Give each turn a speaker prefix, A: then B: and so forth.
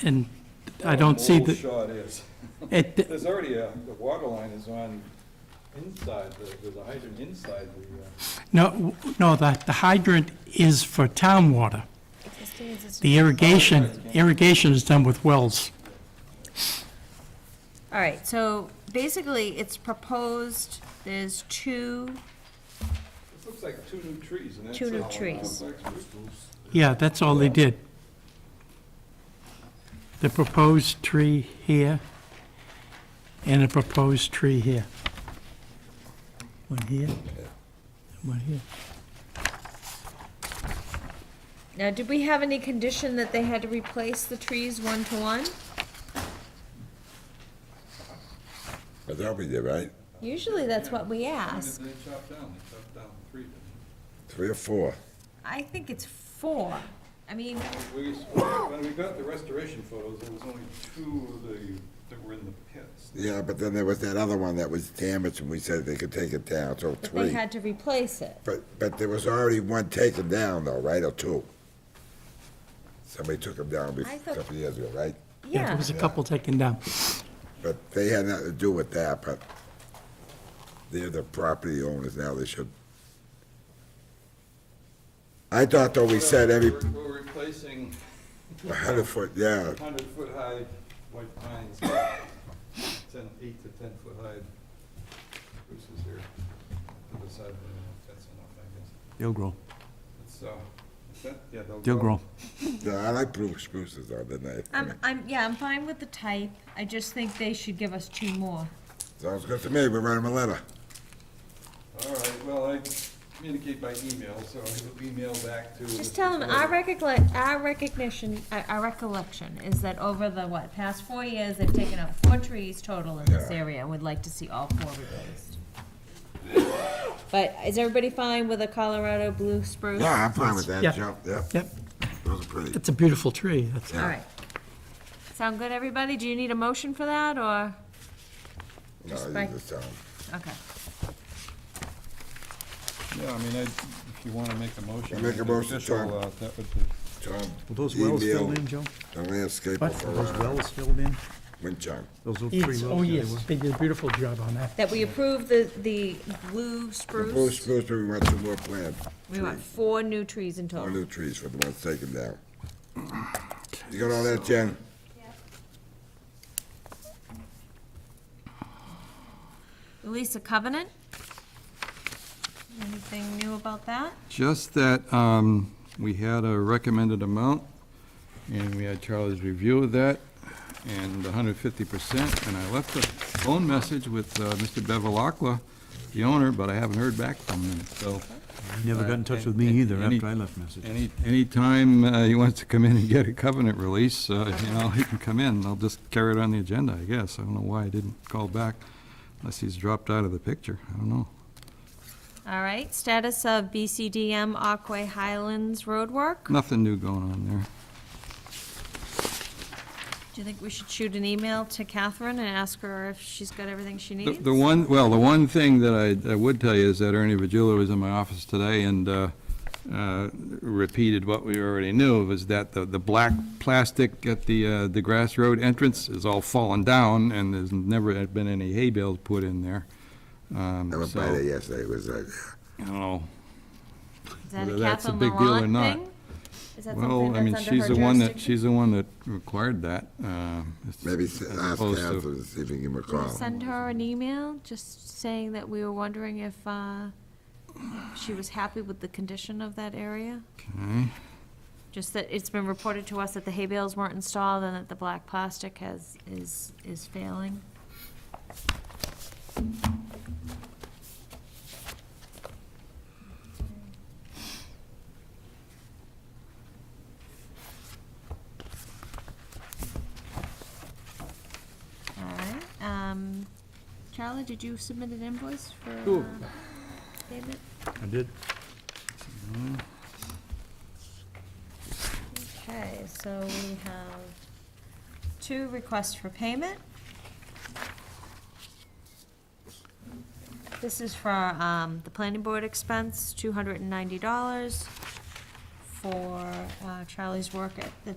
A: and I don't see
B: Old
A: the,
B: shot is.
A: it,
B: There's already a, the water line is on inside, the- there's a hydrant inside the, uh,
A: no, no, the the hydrant is for town water.
C: Existing is a-
A: The irrigation, irrigation is done with wells.
C: All right, so basically, it's proposed, there's two,
B: uh, this looks like two new trees and that's.
C: Two new
B: all.
C: trees.
A: Yeah, that's all they did. The proposed tree here and a proposed tree here. One here, and one here.
C: now, did we have any condition that they had to replace the trees one to one?
D: I thought we did, right?
C: Usually, that's what we
B: When did
C: ask.
B: They chop down, they chopped down three. didn't
D: Three or four.
C: I think it's four. I mean,
B: they? We, when we got the restoration photos, there was only two of the, that were in the pits.
D: Yeah, but then there was that other one that was damaged, and we said they could take it down, so
C: but they
D: three.
C: had to replace it.
D: But, but there was already one taken down though, right, or two? Somebody took them down bef-
C: I
D: a
C: thought-
D: couple of years ago, right?
A: There
C: Yeah,
A: was a couple taken down.
D: But they had nothing to do with that, but they're the property owners now, they should. I thought though we said every
B: We're- We're replacing
D: hundred foot, yeah,
B: hundred foot high white pines, ten, eight to ten foot high spruces here. To the side, that's enough, I guess.
E: They'll grow.
B: It's, uh, is that, yeah, they'll.
E: They'll grow.
D: yeah, I like blue spruces though, didn't I?
C: I'm, I'm, yeah, I'm fine with the type, I just think they should give us two more.
D: Sounds good to me, we write them a letter.
B: All right, well, I communicate by email, so I will email back to.
C: Just
B: Mr.
C: tell them, our
B: Floyd.
C: recollect, our recognition, our- our recollection is that over the, what, past four years, they've taken out four trees total in this
D: Yeah.
C: area, and would like to see all four replaced. But is everybody fine with a Colorado blue spruce?
D: Yeah, I'm fine with
A: Yeah.
D: that, Joe, yeah,
A: Yep,
D: those are pretty.
A: it's a beautiful tree. That's-
C: All right. Sound good, everybody? Do you need a motion for that, or,
D: No,
C: Just
D: you
C: by-
D: just tell 'em.
C: okay.
B: Yeah, I mean, I, if you wanna make a motion.
D: I'll make a motion,
B: official,
D: Tom.
B: uh, That would be.
D: Tom,
E: Will those wells
D: email
E: filled in, Joe?
D: The landscaper
E: What? Are
D: for
E: those
D: uh,
E: wells filled in?
D: Winchung.
E: Those little three wells?
A: Yes, Oh,
E: yeah,
A: yes, they did a beautiful job on that.
C: That we approve the, the blue
D: The blue
C: spruce?
D: spruce, we want some more plant,
C: We want four new trees in
D: more
C: total.
D: new trees for the ones taken down. You got all that, Jen?
C: Release a covenant? Anything new about that?
F: Just that um, we had a recommended amount, and we had Charlie's review of that, and 150%, and I left a phone message with uh, Mr. Bevelakla, the owner, but I haven't heard back from him, so
E: He Never got in touch with me
F: Any-
E: either
F: any-
E: after I left message.
F: any, anytime uh, he wants to come in and get a covenant release, uh, you know, he can come in, I'll just carry it on the agenda, I guess. I don't know why I didn't call back, unless he's dropped out of the picture, I don't know.
C: All right, status of BCDM Aquay Highlands roadwork.
F: Nothing new going on there.
C: Do you think we should shoot an email to Catherine and ask her if she's got everything she
F: The-
C: needs?
F: The one, well, the one thing that I, I would tell you is that Ernie Vigila was in my office today and uh, uh, repeated what we already knew, was that the, the black plastic at the, uh, the grass road entrance is all fallen down, and there's never had been any hay bales put in there. Um,
D: I went
F: So,
D: by there
F: I
D: yesterday, it was like,
F: don't know.
C: Is that a
F: whether that's a
C: Catherine
F: big deal or
C: Laurent
F: not.
C: thing? Is that something
F: Well, I mean,
C: that's under
F: she's
C: her
F: the one that,
C: jurisdiction?
F: she's the one that required that. um, as-
D: maybe
F: as
D: ask
F: opposed to-
D: Catherine to see if he can
C: Do you wanna
D: recall.
C: Send her an email, just saying that we were wondering if, uh, if she was happy with the condition of that area?
F: Okay.
C: Just that it's been reported to us that the hay bales weren't installed and that the black plastic has, is, is failing. All right, um, Charlie, did you submit an invoice for,
F: Sure.
C: uh, payment?
E: I did.
C: Okay, so we have two requests for payment. This is for um, the planning board expense, $290, for uh, Charlie's work at the